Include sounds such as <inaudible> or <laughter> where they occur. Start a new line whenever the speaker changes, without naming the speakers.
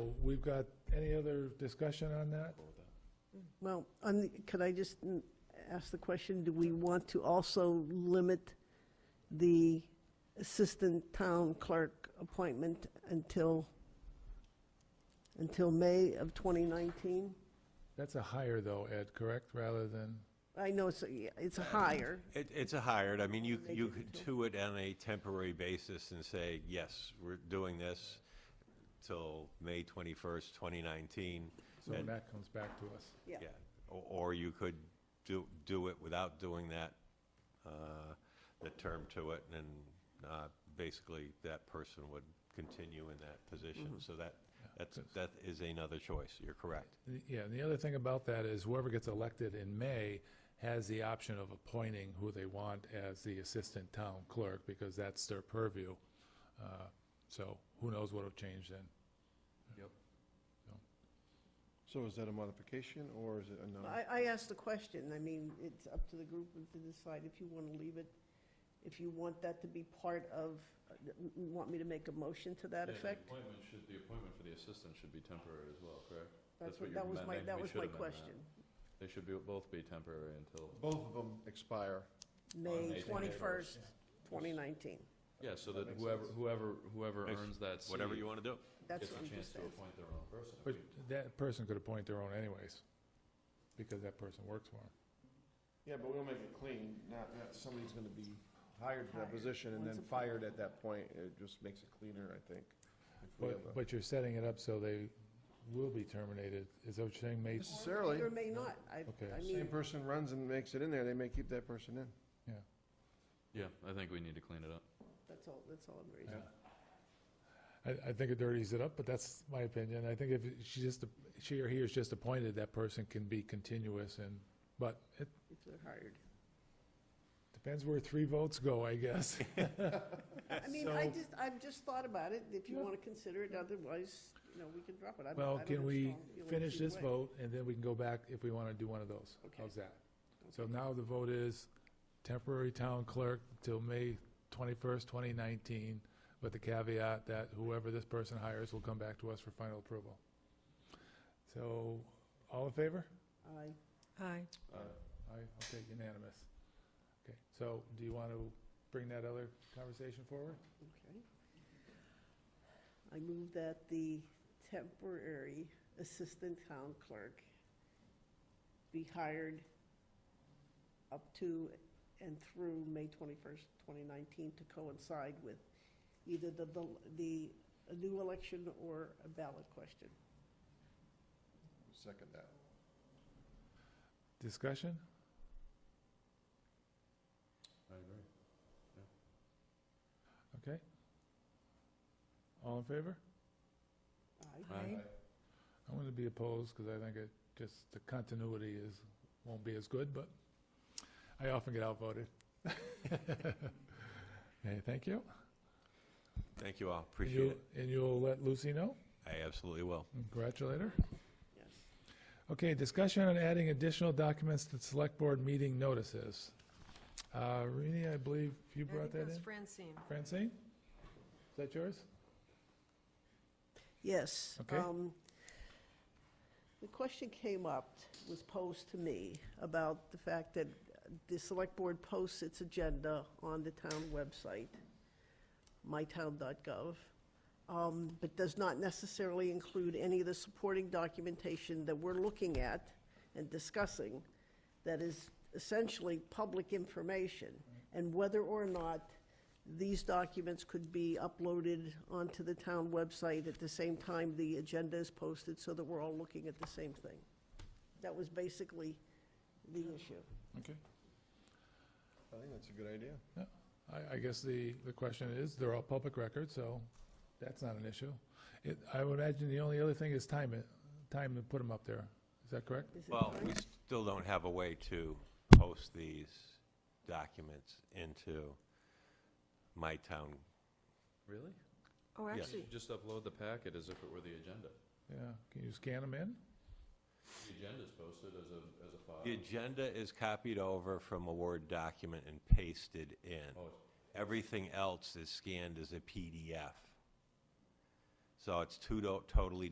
So we've got, any other discussion on that?
Well, on the- could I just mm, ask the question, do we want to also limit the assistant town clerk appointment until, until May of 2019?
That's a higher though, Ed, correct, rather than,
I know it's, a- it's a higher,
It, it's a hired, I mean, you,
They
you
do
could
it
do it on a temporary basis and say, yes, we're doing this till May twenty-first, twenty nineteen.
so when that comes back to us.
yeah.
Yeah, or, or you could do, do it without doing that, uh, the term to it, and, uh, basically, that person would continue in that position,
Mm-hmm.
so that, that's, that is another choice, you're correct.
The- Yeah, and the other thing about that is whoever gets elected in May has the option of appointing who they want as the assistant town clerk, because that's their purview. Uh, So who knows what'll change then?
Yep. So is that a modification or is it a non?
I, I asked the question, I mean, it's up to the group to decide if you want to leave it, if you want that to be part of, want me to make a motion to that
Yeah, the
effect?
Appointment should, the appointment for the assistant should be temporary as well, correct?
That's
That's
what,
what
that
you
was
meant.
my,
Maybe
that
we
was
should
my
amend that.
question.
They should be, both be temporary until,
Both of them expire.
May
May
21st, 2019.
yeah, so that
makes
whoever,
sense.
whoever, whoever
Makes-
earns that seat
Whatever you wanna do.
That's
gets
what
a
I'm
chance
just
to
saying.
appoint their own person.
But that person could appoint their own anyways, because that person works for them.
Yeah, but we'll make it clean, not, not somebody's gonna be hired to that
Hired.
position and
Once
then
appointed.
fired at that point. It just makes it cleaner, I think. if we have a-
But, but you're setting it up so they will be terminated, is that what you're saying, May?
Necessarily,
Or may not, I,
Okay.
I
same
mean,
person runs and makes it in there, they may keep that person in.
Yeah, I think we need to clean it up.
that's all, that's all I'm raising.
Yeah. I, I think it dirties it up, but that's my opinion. I think if she just, she or he is just appointed, that person can be continuous and, but it
If they're hired.
depends where three votes go, I
<laughs>
guess.
I mean, I
So-
just, I've just thought about it, if you
Yeah.
want to consider it, otherwise, you know, we can drop it. I don't- I
Well,
don't
can
have
we
strong feelings
finish
either
this
way.
vote and then we can go back if we want to do one of those?
Okay.
How's that? So now the vote is temporary town clerk till May twenty-first, twenty nineteen, with the caveat that whoever this person hires will come back to us for final approval. So, all in favor?
Aye.
Aye.
Aye, okay, unanimous. Okay, so do you want to bring that other conversation forward?
Okay. I move that the temporary assistant town clerk be hired up to and through May 21st, 2019, to coincide with either the, the, the a new election or a ballot question.
Second that.
Discussion?
I agree.
Okay. All in favor?
Aye.
Aye.
I'm going to be opposed because I think it, just the continuity is, won't be as good, but I often get outvoted. <laughs> Okay, thank you.
Thank you all,
And
appreciate it.
you- And you'll let Lucy know?
I absolutely will.
Congratulate her.
Yes.
Okay, discussion on adding additional documents to select board meeting notices. Uh, Rini, I believe you brought that in?
Francine.
Francine? Is that yours?
Yes.
Okay.
um, The question came up, was posed to me, about the fact that the select board posts its agenda on the town website, mytown.gov, um, but does not necessarily include any of the supporting documentation that we're looking at and discussing that is essentially public information, and whether or not these documents could be uploaded onto the town website at the same time the agenda is posted, so that we're all looking at the same thing. That was basically the issue.
Okay.
I think that's a good idea.
I, I guess the, the question is, they're all public records, so that's not an issue. It, I would imagine the only other thing is time, it- time to put them up there. Is that correct?
Is it
Well,
time?
we still don't have a way to post these documents into my town.
Really?
Oh,
Yes.
actually,
Just upload the packet as if it were the agenda.
Yeah, can you scan them in?
The agenda's posted as a, as a file.
The agenda is copied over from a Word document and pasted in.
Oh, it's-
Everything else is scanned as a PDF. So it's two to- totally